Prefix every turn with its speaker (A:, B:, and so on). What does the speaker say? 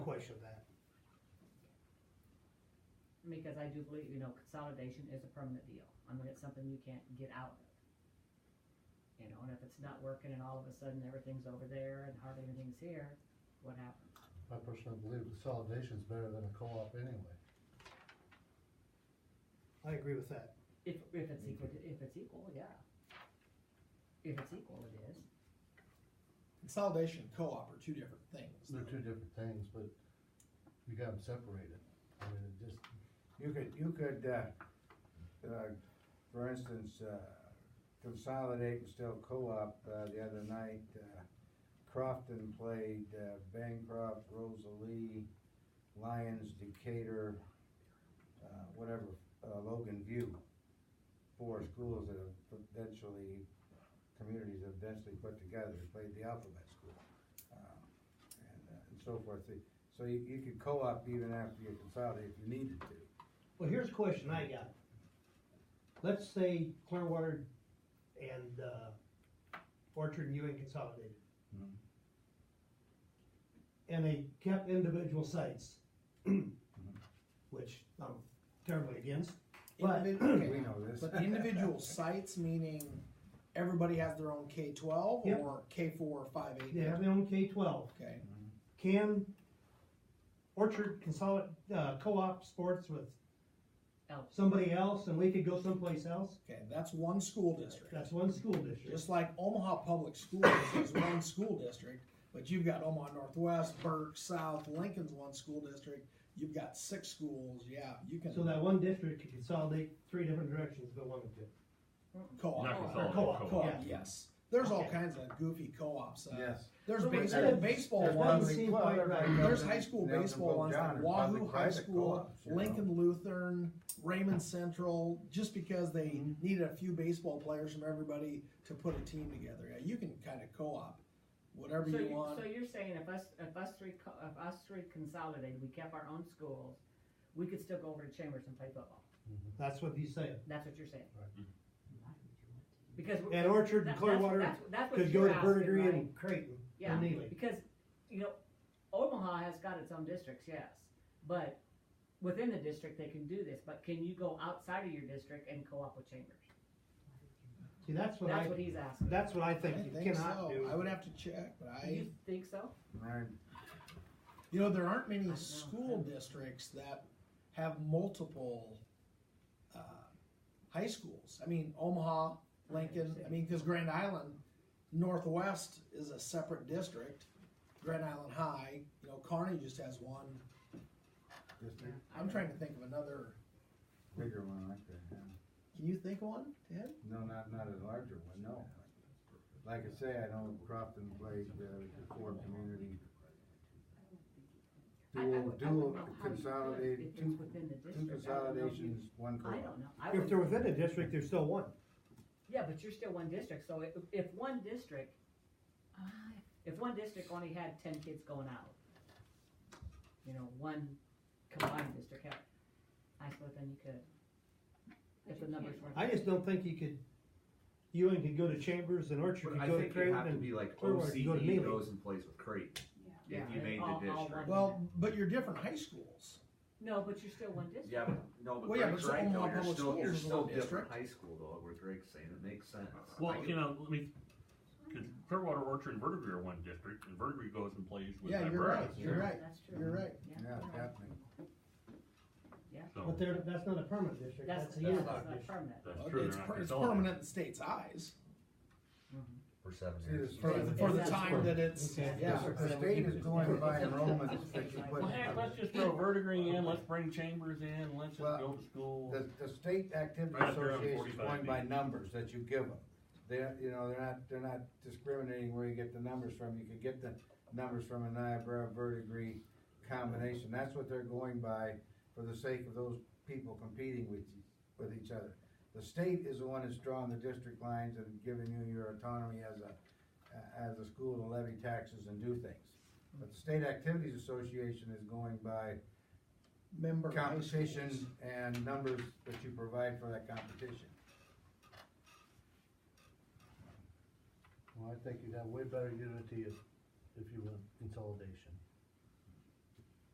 A: question that.
B: Because I do believe, you know, consolidation is a permanent deal. I mean, it's something you can't get out of. You know, and if it's not working and all of a sudden everything's over there and hardly anything's here, what happens?
C: I personally believe consolidation is better than a co-op anyway.
A: I agree with that.
B: If, if it's equal, to- if it's equal, yeah. If it's equal, it is.
D: Consolidation and co-op are two different things.
C: They're two different things, but you got them separated. I mean, it just,
E: You could, you could, uh, uh, for instance, uh, consolidate and still co-op, uh, the other night, uh, Crofton played, uh, Bancroft, Rosalie, Lyons, Decatur, uh, whatever, uh, Logan View. Four schools that have eventually, communities have eventually put together, They played the alphabet school. um, And, uh, and so forth, So- so you, you could co-op even after you consolidate if you needed to.
A: Well, here's a question I got. Let's say Clearwater and, uh, Orchard and Ewing consolidated.
E: Mhm.
A: And they kept individual sites, which I'm terribly against. But-
D: Individ-
E: We
D: okay.
E: know this.
D: But individual sites, meaning everybody has their own K twelve
A: Yep.
D: or K four or five eight.
A: They have their own K twelve.
D: Okay,
A: Can Orchard consolidate, uh, co-op sports with
B: Else.
A: somebody else and we could go someplace else?
D: okay, that's one school district.
A: That's one school district.
D: Just like Omaha Public Schools is one school district, but you've got Omaha Northwest, Burke, South, Lincoln's one school district. You've got six schools, yeah, you can
A: So that one district could consolidate three different directions if it wanted to.
D: co-op.
F: Not
A: Or
F: consolidated,
A: co-op,
D: Co-op,
A: yeah.
D: yes. There's all
A: Okay.
D: kinds of goofy co-ops. Uh,
E: Yes.
D: There's
A: Well, but
D: baseball,
A: that-
D: baseball
A: that
D: ones.
A: doesn't seem quite right.
D: There's high school baseball ones like Wahoo High School, Lincoln Lutheran, Raymond Central, just because they
E: Mhm.
D: needed a few baseball players from everybody to put a team together. Yeah, you can kind of co-op whatever
B: So
D: you,
B: you-
D: want.
B: So you're saying if us, if us three, co- if us three consolidated, we kept our own schools, we could still go over to Chambers and play football?
D: Mm-hmm.
A: That's what he's saying.
B: That's what you're saying?
C: Right.
B: Because. we're-
A: And Orchard and
B: that- that's-
A: Clearwater
B: that's- that's what
A: could go
B: you're
A: to
B: asking,
A: Verdigris
B: right?
A: and Creighton
B: Yeah,
A: and Neely.
B: because, you know, Omaha has got its own districts, yes, but within the district, they can do this, but can you go outside of your district and co-op with Chambers?
A: See, that's what I,
B: That's what he's asking.
A: that's what I
D: I
A: think
D: don't
A: you
D: think
A: cannot
D: so.
A: do.
D: I would have to check, but I.
B: Do you think so?
D: You know, there aren't
B: I
D: many
B: know.
D: school districts that have multiple uh, high schools. I mean, Omaha, Lincoln, I mean, because Grand Island Northwest is a separate district. Grand Island High, you know, Kearney just has one. I'm trying to think of another.
E: Bigger one like that, yeah.
D: Can you think of one, Ted?
E: No, not, not a larger one, no. Like I say, I know Crofton played, uh, the four community.
B: I- I would- I
E: Dual,
B: would
E: dual
B: know how you could
E: consolidated,
B: If
E: two,
B: it's within the
E: two
B: district. I don't know if you-
E: consolidations, one
B: I
E: co-op.
B: don't know. I
A: If
B: would-
A: they're within a district, there's still one.
B: Yeah, but you're still one district, so if, if one district, uh, if one district only had ten kids going out, you know, one combined district had, I suppose then you could. If the numbers weren't.
A: I just don't think you could, Ewing could go to Chambers and Orchard
F: But
A: could
F: I
A: go to
F: think it'd have to
A: Creighton
F: be like
A: Clearwater, go to Neely.
F: OCD goes and plays with Creighton, if you
B: Yeah.
F: made
B: All- all
F: the
B: one.
F: district.
D: Well, but you're different high schools.
B: No, but you're still one district.
F: Yeah, but, no, but
D: Well, yeah,
F: Greg's
D: but
F: right, though,
D: Omaha
F: you're
D: Public
F: still, you're
D: Schools is
F: still
D: one
F: different
D: district.
F: high school though, where Greg's saying, it makes sense.
G: Well,
F: I
G: you know, let me, because Clearwater Orchard and Verdigris are one district, and Verdigris goes and plays with
D: Yeah,
G: my
D: you're right.
G: brothers.
D: You're right.
B: That's true.
D: You're right.
B: Yeah.
E: Yeah, definitely.
A: But
G: So,
A: they're, that's not a permanent district,
B: That's,
A: that's a
B: yeah,
A: unit
B: that's
A: district.
B: not permanent.
G: that's
D: Well,
G: true.
D: it's
G: they're not
D: per- it's
G: consolidated.
D: permanent in the state's eyes
F: For seven
E: See,
F: years.
E: this-
D: for, the- for the
B: That's
D: time that it's.
A: Okay.
D: Yeah.
E: The state is going by enrollments that you put.
G: Well, heck, let's just throw Verdigris in, let's bring Chambers in, let's just
E: Well,
G: go to school.
E: The, the state activity
G: Right up there on
E: association is
G: 45
E: going by
G: B.
E: numbers that you give them. They're, you know, they're not, they're not discriminating where you get the numbers from, you could get the numbers from a Niobrara verdigris combination, that's what they're going by for the sake of those people competing with, with each other. The state is the one that's drawing the district lines and giving you your autonomy as a, as a school to levy taxes and do things. But the state activities association is going by
D: member high schools.
E: competition and numbers that you provide for that competition.
C: well, I think you'd have way better unity if, if you went consolidation.